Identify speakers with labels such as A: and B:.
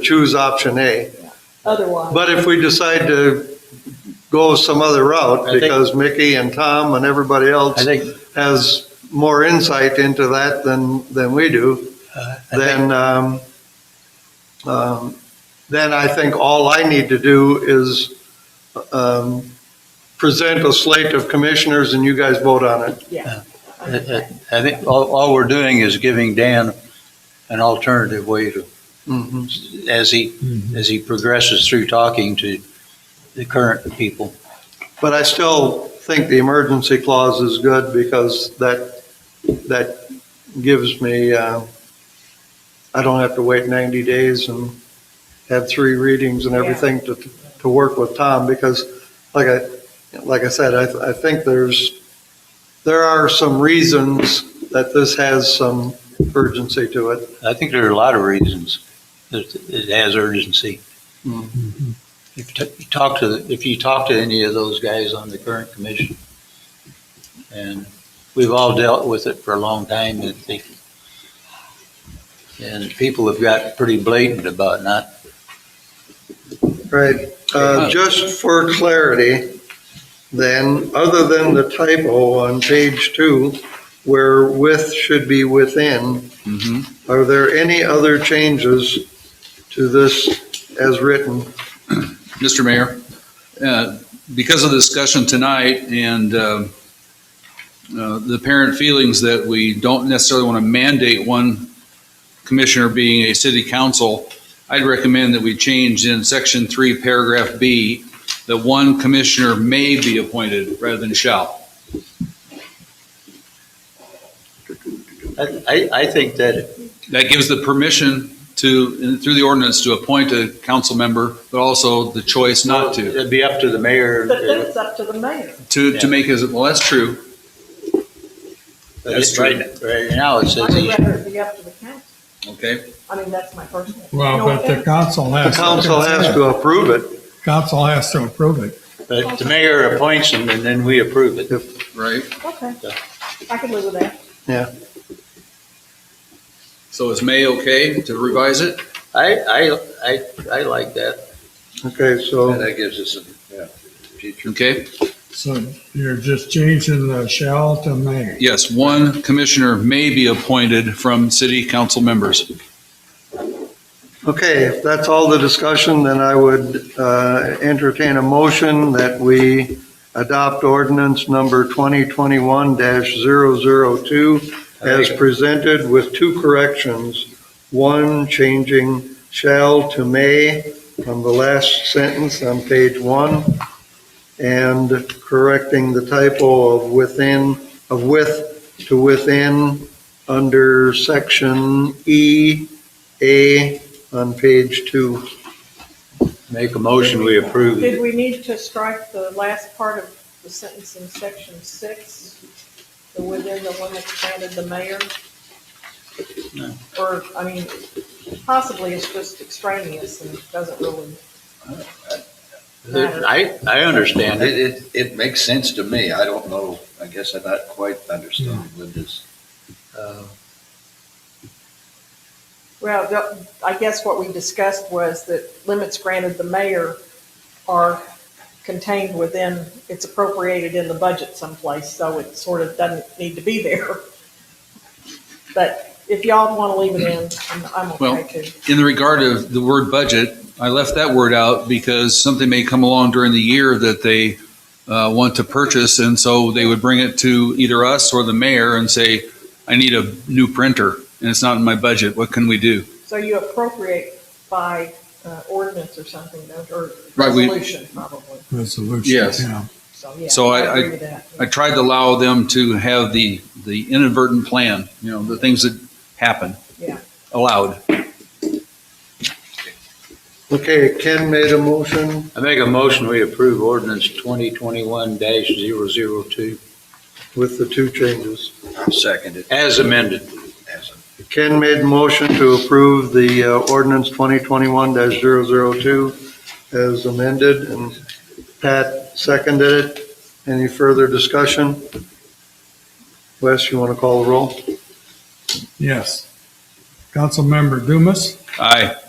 A: choose option A.
B: otherwise.
A: But if we decide to go some other
C: I
A: route,
C: think-
A: because Mickey and Tom and everybody
C: I
A: else
C: think,
A: has more insight into that than, than we do,
C: uh, I think,
A: then, um, um, then I think all I need to do is, um, present a slate of commissioners and you guys vote on it.
C: I- I- I think all, all we're doing is giving Dan an alternative way to,
A: Mhm.
C: as he, as he progresses through talking to the current people.
A: But I still think the emergency clause is good because that, that gives me, uh, I don't have to wait 90 days and have three readings and everything to, to work with Tom because like I, like I said, I, I think there's, there are some reasons that this has some urgency to it.
C: I think there are a lot of reasons that it has urgency.
A: Hmm.
C: If t- you talk to, the- if you talk to any of those guys on the current commission, and we've all dealt with it for a long time, and they, and people have got pretty blatant about not,
A: Right, uh, just for clarity, then, other than the typo on page two, where with should be within,
D: Mm-hmm.
A: are there any other changes to this as written?
D: Mr. Mayor, uh, because of the discussion tonight and um, uh, the apparent feelings that we don't necessarily want to mandate one commissioner being a city council, I'd recommend that we change in section three, paragraph B, that one commissioner may be appointed rather than shall.
C: I, I, I think that,
D: That gives the permission to, through the ordinance, to appoint a council member, but also the choice not to,
C: it'd be up to the mayor. uh,
B: But then it's up to the mayor.
D: to, to make his, well, that's true.
C: But
D: That's
C: it-
D: true.
C: Right right now, it says,
B: I would
C: he-
B: rather it be up to the council.
D: Okay,
B: I mean, that's my personal.
E: Well,
B: No
E: but the
B: offense.
E: council
A: The
E: has.
A: council has to approve it,
E: Council has to approve it.
C: but the mayor appoints him, and then we approve it.
D: right.
B: Okay, I could live with that.
D: So is May okay to revise it?
C: I, I, I, I like that.
A: okay, so,
C: That gives us some future.
D: Okay,
E: So you're just changing the shall to may.
D: yes, one commissioner may be appointed from city council members.
A: okay, if that's all the discussion, then I would, uh, entertain a motion that we adopt ordinance number 2021-002 as presented with two corrections. One, changing shall to may on the last sentence on page one, and correcting the typo of within, of with to within under section E, A on page two.
C: Make a motion, we approve it.
B: Did we need to strike the last part of the sentence in section six? The within the one that granted the mayor?
C: No.
B: Or, I mean, possibly it's just extraneous and doesn't really,
C: I, I understand it.
F: It, it, it makes sense to me. I don't know, I guess I'm not quite understanding Linda's.
C: Uh,
B: well, the- I guess what we discussed was that limits granted the mayor are contained within, it's appropriated in the budget someplace, so it sort of doesn't need to be there. But if y'all want to leave it in, I'm- I'm
D: Well,
B: okay too.
D: In the regard of the word budget, I left that word out because something may come along during the year that they uh, want to purchase, and so they would bring it to either us or the mayor and say, I need a new printer, and it's not in my budget, what can we do?
B: So you appropriate by uh, ordinance or something, don't- or
D: Right, we-
B: resolution probably,
E: Resolution.
D: Yes.
E: yeah.
B: so yeah.
D: So I-
B: agree with that.
D: I tried to allow them to have the, the inadvertent plan, you know, the things that happen.
B: Yeah.
D: Allowed.
A: Okay, Ken made a motion.
C: I make a motion, we approve ordinance twenty twenty-one 2
A: with the two changes.
F: I'll second it
C: as amended.
F: as a,
A: Ken made a motion to approve the uh, ordinance 2021-002 as amended, and Pat seconded it. Any further discussion? Wes, you want to call the roll?
E: Yes. Councilmember Dumas,
D: Aye.